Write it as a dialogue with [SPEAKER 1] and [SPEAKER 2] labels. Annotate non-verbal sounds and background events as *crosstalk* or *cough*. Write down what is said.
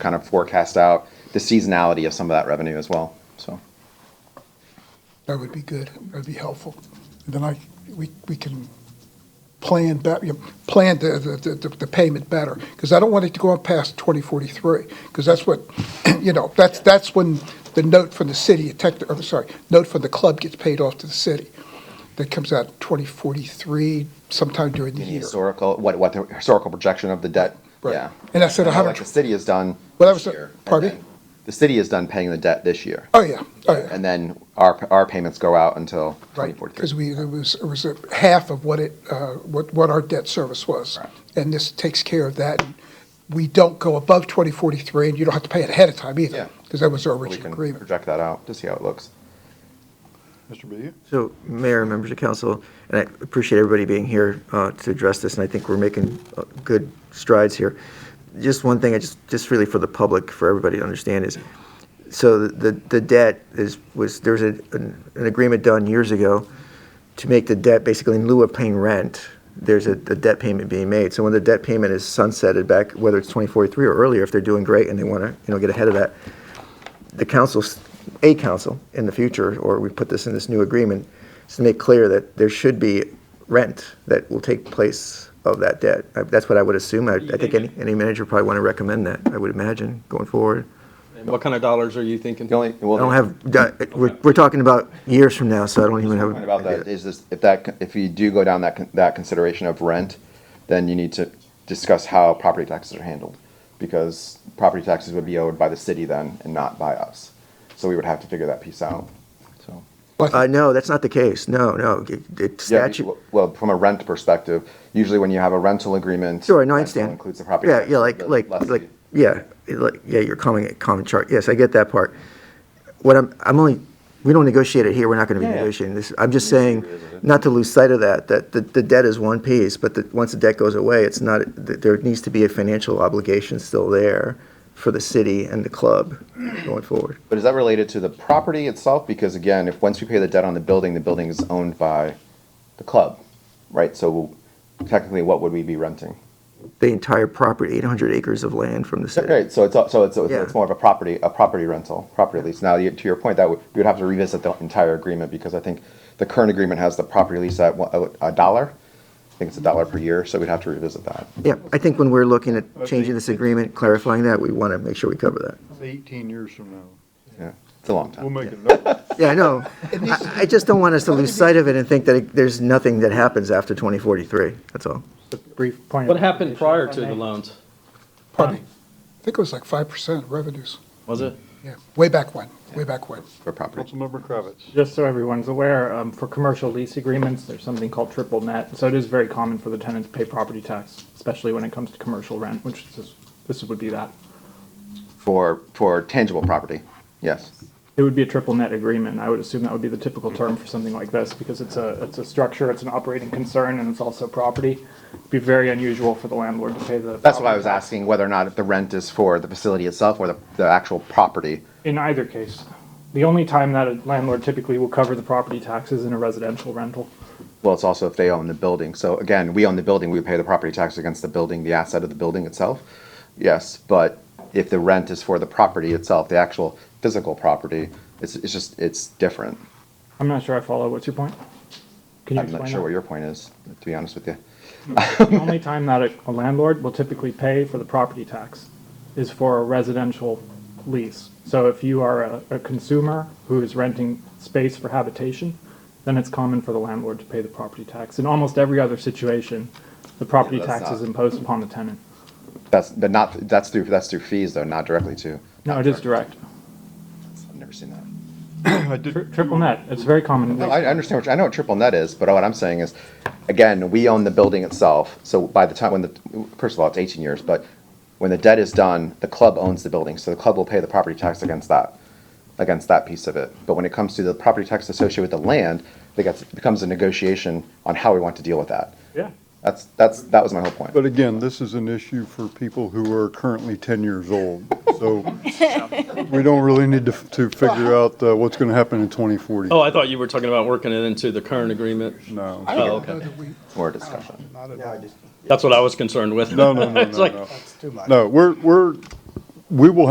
[SPEAKER 1] kind of forecast out the seasonality of some of that revenue as well, so.
[SPEAKER 2] That would be good. That would be helpful. And Then I, we, we can plan bet, you know, plan the, the, the, the payment better. Because I don't want it to go up past twenty forty-three, because that's what, *clears throat* you know, that's, that's when the note from the city, tech, or sorry, note from the club gets paid off to the city. That comes out twenty forty-three sometime during the
[SPEAKER 1] Any
[SPEAKER 2] year.
[SPEAKER 1] historical, what, what the historical projection of the debt,
[SPEAKER 2] Right.
[SPEAKER 1] yeah.
[SPEAKER 2] And I said
[SPEAKER 1] I know, like
[SPEAKER 2] 100
[SPEAKER 1] The city has done
[SPEAKER 2] Well, that was
[SPEAKER 1] this
[SPEAKER 2] the-
[SPEAKER 1] year. and
[SPEAKER 2] pardon me?
[SPEAKER 1] then- The city has done paying the debt this year.
[SPEAKER 2] Oh, yeah, oh, yeah.
[SPEAKER 1] And then our, our payments go out until
[SPEAKER 2] Right, because
[SPEAKER 1] 2043.
[SPEAKER 2] we, it was, it was a half of what it, uh, what, what our debt service was.
[SPEAKER 1] Correct.
[SPEAKER 2] And this takes care of that. And We don't go above 2043, and you don't have to pay it ahead of time
[SPEAKER 1] Yeah.
[SPEAKER 2] either, because that was our
[SPEAKER 1] We
[SPEAKER 2] original
[SPEAKER 1] can
[SPEAKER 2] agreement.
[SPEAKER 1] project that out to see how it looks.
[SPEAKER 3] Mr. Booth?
[SPEAKER 4] So, Mayor, members of council, and I appreciate everybody being here uh, to address this, and I think we're making uh, good strides here. Just one thing, I just, just really for the public, for everybody to understand is, so the, the debt is, was, there was a- an an agreement done years ago to make the debt basically in lieu of paying rent, there's a, a debt payment being made. So when the debt payment is sunsetted back, whether it's 2043 or earlier, if they're doing great and they want to, you know, get ahead of that, the council, a council in the future, or we put this in this new agreement, is to make clear that there should be rent that will take place of that debt. I- That's what I would assume. I, I think any, any manager probably want to recommend that, I would imagine, going forward.
[SPEAKER 5] And what kind of dollars are you thinking?
[SPEAKER 1] The only,
[SPEAKER 4] I don't have, we're, we're talking about years from now, so I don't even have.
[SPEAKER 1] Point about that is this, if that, if you do go down that, con- that consideration of rent, then you need to discuss how property taxes are handled. Because property taxes would be owed by the city then and not by us. So we would have to figure that piece out, so.
[SPEAKER 4] Uh,
[SPEAKER 2] But
[SPEAKER 4] no, that's not the case. No, no, it- it
[SPEAKER 1] Yeah,
[SPEAKER 4] statute.
[SPEAKER 1] Well, from a rent perspective, usually when you have a rental agreement.
[SPEAKER 4] Sure, no,
[SPEAKER 1] rental
[SPEAKER 4] I understand.
[SPEAKER 1] Includes the property.
[SPEAKER 4] Yeah,
[SPEAKER 1] tax,
[SPEAKER 4] yeah, like,
[SPEAKER 1] the
[SPEAKER 4] like,
[SPEAKER 1] lessee.
[SPEAKER 4] like, yeah, like, yeah, you're calling common chart. Yes, I get that part. What I'm, I'm only, we don't negotiate it here. We're not going to be
[SPEAKER 1] Yeah, yeah.
[SPEAKER 4] negotiating this. I'm just
[SPEAKER 1] We just
[SPEAKER 4] saying,
[SPEAKER 1] revisit it.
[SPEAKER 4] not to lose sight of that, that the, the debt is one piece, but that, once the debt goes away, it's not, that there needs to be a financial obligation still there for the city and the club going forward.
[SPEAKER 1] But is that related to the property itself? Because again, if, once we pay the debt on the building, the building is owned by the club, right? So technically, what would we be renting?
[SPEAKER 4] The entire property, 800 acres of land from the city.
[SPEAKER 1] Right, so it's, so it's, it's
[SPEAKER 4] Yeah.
[SPEAKER 1] more of a property, a property rental, property lease. Now, you- to your point, that would, we would have to revisit the entire agreement because I think the current agreement has the property lease at one- a dollar. I think it's a dollar per year, so we'd have to revisit that.
[SPEAKER 4] Yeah, I think when we're looking at changing this agreement, clarifying that, we want to make sure we cover that.
[SPEAKER 3] It's 18 years from now.
[SPEAKER 1] Yeah, it's a long
[SPEAKER 3] We'll
[SPEAKER 1] time.
[SPEAKER 3] make a note.
[SPEAKER 4] Yeah, I know. I I just don't want us to lose sight of it and think that it- there's nothing that happens after 2043, that's all.
[SPEAKER 6] brief point. of
[SPEAKER 5] What happened
[SPEAKER 6] clarification,
[SPEAKER 5] prior
[SPEAKER 6] if I
[SPEAKER 5] to the
[SPEAKER 6] may.
[SPEAKER 5] loans?
[SPEAKER 2] pardon me, I think it was like 5% revenues,
[SPEAKER 5] Was it?
[SPEAKER 2] yeah, way back when, way back when.
[SPEAKER 1] For property.
[SPEAKER 3] Councilmember Kravitz.
[SPEAKER 6] Just so everyone's aware, um, for commercial lease agreements, there's something called triple net. So it is very common for the tenant to pay property tax, especially when it comes to commercial rent, which is, this would be that.
[SPEAKER 1] For, for tangible property, yes.
[SPEAKER 6] It would be a triple net agreement. I would assume that would be the typical term for something like this because it's a, it's a structure, it's an operating concern, and it's also property. It'd be very unusual for the landlord to pay the.
[SPEAKER 1] That's why I was
[SPEAKER 6] property tax.
[SPEAKER 1] asking whether or not the rent is for the facility itself or the, the actual property.
[SPEAKER 6] In either case, the only time that a landlord typically will cover the property taxes in a residential rental.
[SPEAKER 1] Well, it's also if they own the building. So again, we own the building, we pay the property tax against the building, the asset of the building itself. Yes, but if the rent is for the property itself, the actual physical property, it's, it's just, it's different.
[SPEAKER 6] I'm not sure I follow. What's your point? Can you
[SPEAKER 1] I'm not
[SPEAKER 6] explain
[SPEAKER 1] sure
[SPEAKER 6] that?
[SPEAKER 1] what your point is, to be honest with you.
[SPEAKER 6] The only time that a- a landlord will typically pay for the property tax is for a residential lease. So if you are a, a consumer who is renting space for habitation, then it's common for the landlord to pay the property tax. In almost every other situation, the property
[SPEAKER 1] Yeah, that's
[SPEAKER 6] tax is
[SPEAKER 1] not-
[SPEAKER 6] imposed upon the tenant.
[SPEAKER 1] That's, but not, that's through, that's through fees though, not directly to.
[SPEAKER 6] No, it is direct.
[SPEAKER 1] I've never seen that.
[SPEAKER 3] I did-
[SPEAKER 6] Tri- Triple net, it's very common.
[SPEAKER 1] No, I I understand what, you- I know what triple net is, but what I'm saying is, again, we own the building itself, so by the time when the, first of all, it's eighteen years, but when the debt is done, the club owns the building, so the club will pay the property tax against that, against that piece of it. But when it comes to the property tax associated with the land, it gets, it becomes a negotiation on how we want to deal with that.
[SPEAKER 6] Yeah.
[SPEAKER 1] That's, that's, that was my whole point.
[SPEAKER 3] But again, this is an issue for people who are currently 10 years old. So we don't really need to, to figure out uh, what's going to happen in 2040.
[SPEAKER 5] Oh, I thought you were talking about working it into the current agreement.
[SPEAKER 3] No.
[SPEAKER 2] I
[SPEAKER 5] Oh,
[SPEAKER 2] don't
[SPEAKER 5] okay.
[SPEAKER 2] know that we, uh,
[SPEAKER 1] More discussion.
[SPEAKER 5] That's what I was concerned with. *laughs*
[SPEAKER 3] No, no, no, no,
[SPEAKER 5] It's like-
[SPEAKER 3] no. No, we're, we're, we will